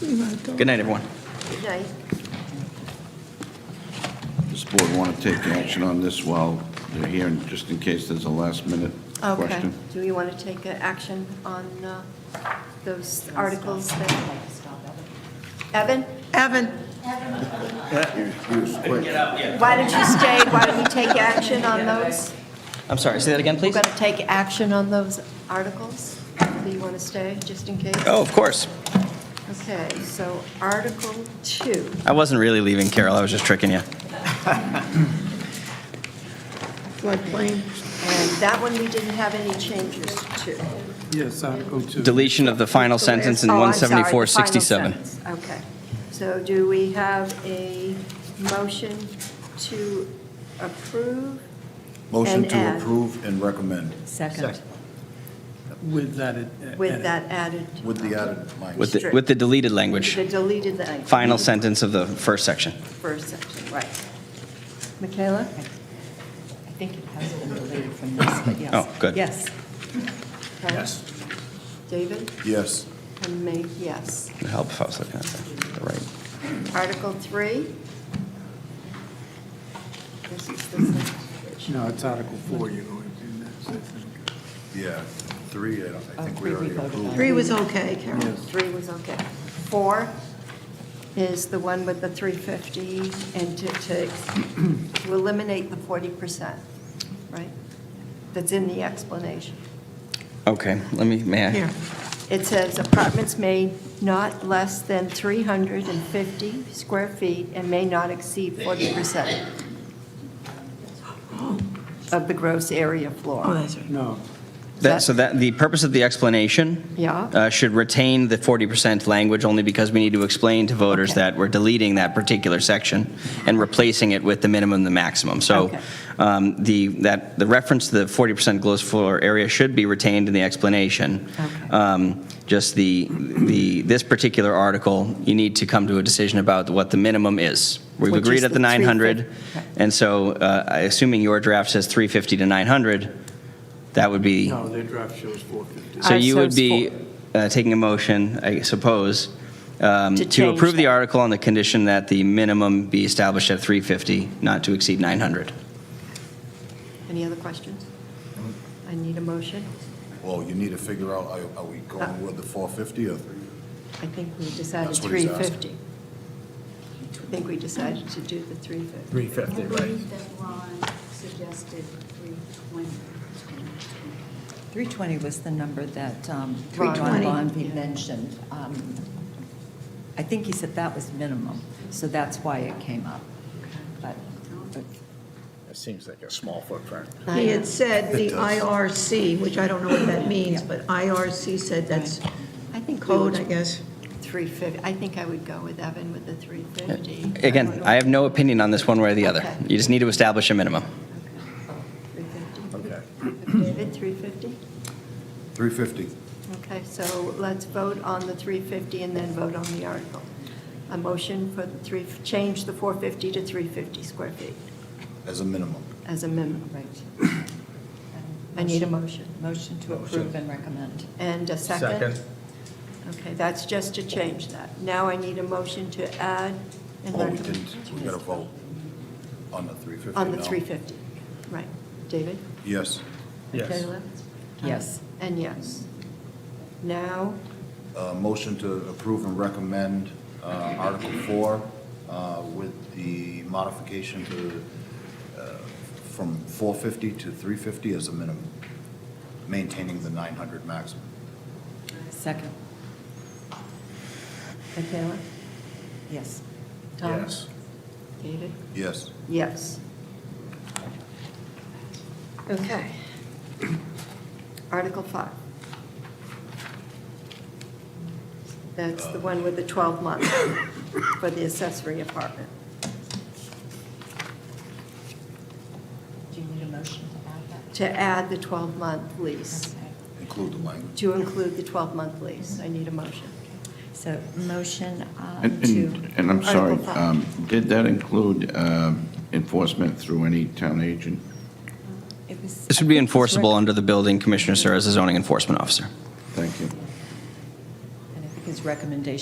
Good night, everyone. night. Does the board want to take action on this while they're here, and just in case there's a last-minute Okay. question? Do we want to take uh, action on uh, those articles that, Evan? Evan, Why don't you stay? Why don't we take action on those? I'm sorry, say that again, We're please? going to take action on those articles. Do you want to stay, just in case? Oh, of course. Okay, so Article 2. I wasn't really leaving, Carol, I was just tricking you. floodplain, And that one we didn't have any changes to. Yes, Article 2. Deletion of the final sentence in Oh, I'm sorry, the final 17467. sentence. Okay. So do we have a motion to approve? Motion And to add. approve and recommend Second. With that. it- uh, With edit. that added. with the added With language. the, with the deleted language, The deleted language. final sentence of the first section. First section, right. Michaela? I think it has been deleted from this, but yes. Oh, good. Yes. Okay. David? Yes. And me, yes. It'd help if I was looking at the the right. Article 3? This is the same. No, it's Article 4 you're going to do next, I think. Yeah, three, I don't- I think Oh, we three we already voted on. approved. three was okay, Carol. Three was okay. Four is the one with the 350 and to, to to eliminate the 40%, right? That's in the explanation. Okay, let me, may I? Here, It says apartments may not less than 350 square feet and may not exceed 40% of the gross area oh, floor. that's right. No, That, so that, the purpose of the explanation Yeah? uh, should retain the 40% language only because we need to explain to voters Okay. that we're deleting that particular section and replacing it with the minimum, and the maximum. So Okay. um, the, that, the reference to the 40% gross floor area should be retained in the explanation. Okay. Um, Just the, the, this particular article, you need to come to a decision about what the minimum is. We've Which is agreed at the the 900, 350. Okay. and so uh, I- assuming your draft says 350 to 900, that would be no, their draft shows 450. so Our you would source be uh, taking a motion, I suppose, um, To to change approve the that. article on the condition that the minimum be established at 350, not to exceed 900. Any other questions? I need a motion. Well, you need to figure out, are- are we going with the 450 or three? I think we decided That's what he's 350. I think we decided to do the 350. I believe that Ron suggested 320. 320 was the number that um, Ron. Ron 320. Bonvy Yeah. mentioned. Um, I think he said that was minimum, so that's why it came up. But but That seems like a small footprint. He had said the IRC, which I don't know what that means, but IRC said that's I think we would- code, I guess. 350, I think I would go with Evan with the 350. Again, I have no opinion on this one way or the other. Okay. You just need to establish a minimum. 350. David, 350? 350. Okay, so let's vote on the 350 and then vote on the article. A motion for the three, change the 450 to 350 square feet as a minimum. as a minimum. Right. I need a motion. Motion to approve and recommend. And a second? Okay, that's just to change that. Now I need a motion to add and Well, Oh, we recommend didn't, we got to vote on the 350 on the now. 350. Right. David? Yes. Yes. Michaela? Yes. And yes. Now, Uh, Motion to approve and recommend uh, Article 4 uh, with the modification to, uh, from 450 to 350 as a minimum, maintaining the 900 maximum. Second. Michaela? Yes. Tom? David? Yes. Yes. Okay. Article 5. That's the one with the 12 month for the accessory apartment. Do you need a motion to To add the 12 month lease, Okay. Include the language. to include the 12 month lease. I need a motion. So motion um, And- to. And and I'm sorry, Article five. um, did that include um, enforcement through any town agent? it was- This I would be think it's enforceable rec- under the building commissioner, sir, as a zoning enforcement officer. Thank you. And I think his recommendation